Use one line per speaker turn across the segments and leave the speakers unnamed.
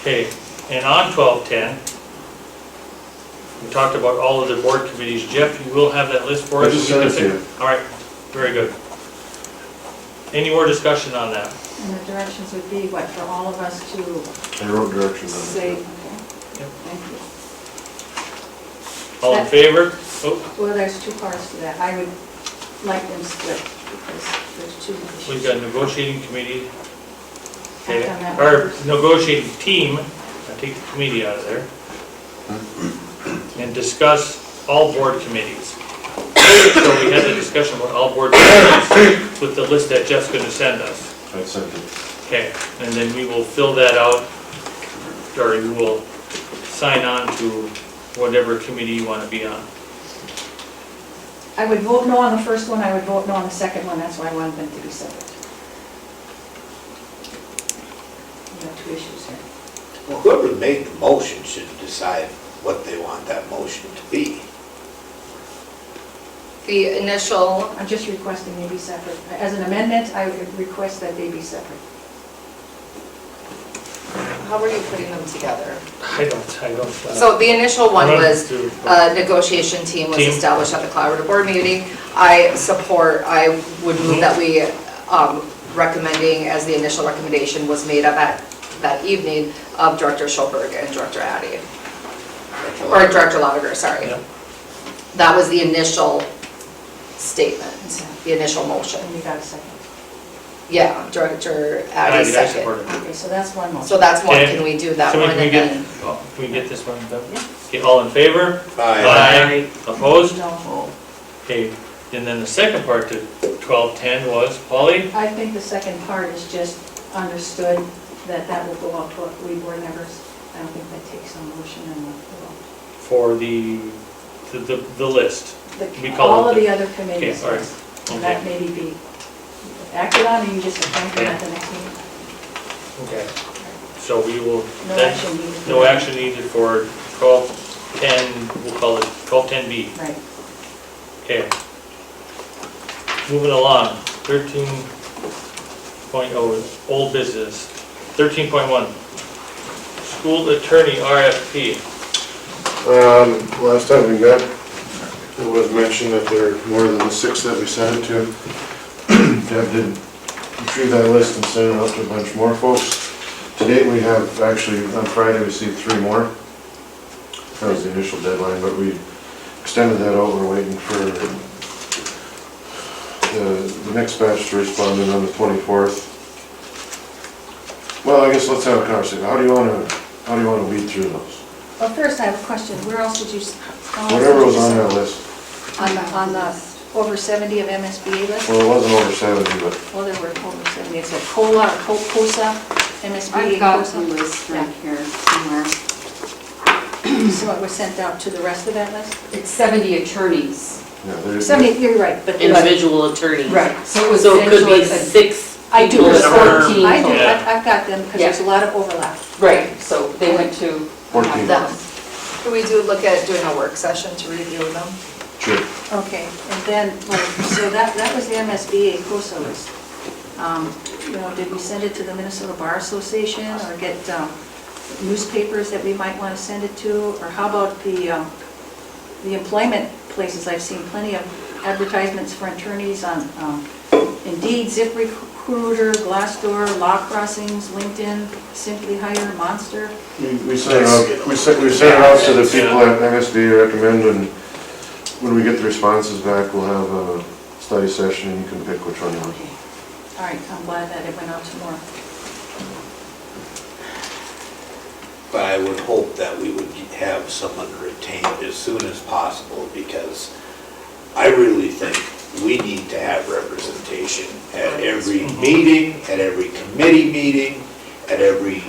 Okay, and on twelve ten, we talked about all of the board committees. Jeff, you will have that list for
I
us?
just
You can
sent it to
pick- All right, very good. Any more discussion on that?
And the directions would be what, for all of us to
I wrote directions on
say?
it.
okay,
Yep.
Thank you.
All in favor? Oh,
Well, there's two parts to that. I would like them split because there's two issues.
we've got negotiating committee.
I've
Okay,
done that
or
first.
negotiating team, I take the committee out of there. And discuss all board committees. So we had a discussion about all board committees with the list that Jeff's gonna send us.
I sent it.
Okay, and then we will fill that out, or you will sign on to whatever committee you want to be on.
I would vote no on the first one, I would vote no on the second one, that's why I wanted them to be separate. We have two issues here.
Well, Whoever made the motion should decide what they want that motion to be.
The initial,
I'm just requesting they be separate. As an amendment, I would request that they be separate.
how were you putting them together?
I don't, I don't. uh,
So the initial one was uh,
All
a negotiation team was
uh, Team.
established at the collaborative board meeting. I support, I would move that we, um, recommending, as the initial recommendation was made up at that evening of Director Schulberg and Director Addy, or Director Lotiger, sorry.
Yeah.
That was the initial statement, the initial motion.
And you got a second.
Yeah, Director
I
Addy second.
Okay, so that's one motion.
So that's one,
Okay.
can we do that
So we-
one
we
and
get- Oh,
then?
Can we get this one done?
Yeah.
Okay, all in favor?
Aye.
Opposed?
No.
Okay, and then the second part to twelve ten was, Polly?
I think the second part is just understood that that will go out to our we board members. I don't think that takes a motion and a vote.
For the, the, the- the list.
The-
We call
All of
it the-
the other committees,
all right.
yes. And
Okay.
that maybe be acted on, and you just appoint them at the next meeting.
Okay. So we will.
No
then-
action needed.
No action needed for twelve ten, we'll call it twelve ten B.
Right.
Okay. Moving along, thirteen point oh, old business, thirteen point one. School attorney RFP,
Um, last time we got, it was mentioned that there are more than the six that we sent it to. Deb did retrieve that list and sent it out to a bunch more folks. To date, we have, actually, on Friday, we received three more. That was the initial deadline, but we extended that out, we're waiting for the, the next batch to respond in on the twenty-fourth. Well, I guess let's have a conversation, how do you wanna, how do you wanna weed through those?
Well, first, I have a question. Where else did you? s- how else did
Whatever
you
was on
send-
that list.
On the, on the over 70 of MSBA list?
Well, it wasn't over seventy, but
Well, there were over 70. It's a COLA, or co- COSA, MSBA
I've got the
COSA.
list right here somewhere.
So it was sent out to the rest of that list?
It's 70 attorneys,
yeah, there's.
70, you're right, but.
individual attorneys.
right, so it was
So it could
essentially
be
a...
six.
I do,
people
it's
that were-
14.
I do,
Yeah.
I- I've got them because there's a lot of overlap.
Right, so they went to...
Fourteen.
That
Could we do, look at doing a work session to review them?
Sure.
Okay, and then, well, so that, that was the MSBA COSA list. Um, You know, did we send it to the Minnesota Bar Association or get um, newspapers that we might want to send it to? Or how about the, um, the employment places? I've seen plenty of advertisements for attorneys on um, Indeed, ZipRecruiter, Glassdoor, Law Crossings, LinkedIn, Simply Hire, Monster.
We we sent it out, we sent, we sent it out to the people at MSBA recommend and when we get the responses back, we'll have a study session and you can pick which one you want.
Okay, all right, I'm glad that it went out to more.
But I would hope that we would have someone retained as soon as possible because I really think we need to have representation at every meeting, at every committee meeting, at every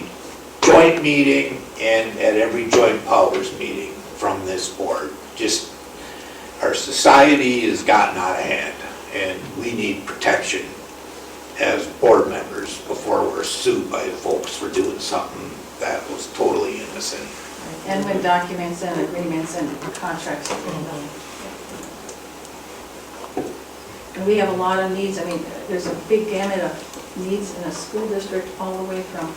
joint meeting, and at every joint powers meeting from this board. Just, our society has gotten out of hand and we need protection as board members before we're sued by folks for doing something that was totally innocent.
And with documents and agreements and contracts. And we have a lot of needs, I mean, there's a big gamut of needs in a school district, all the way from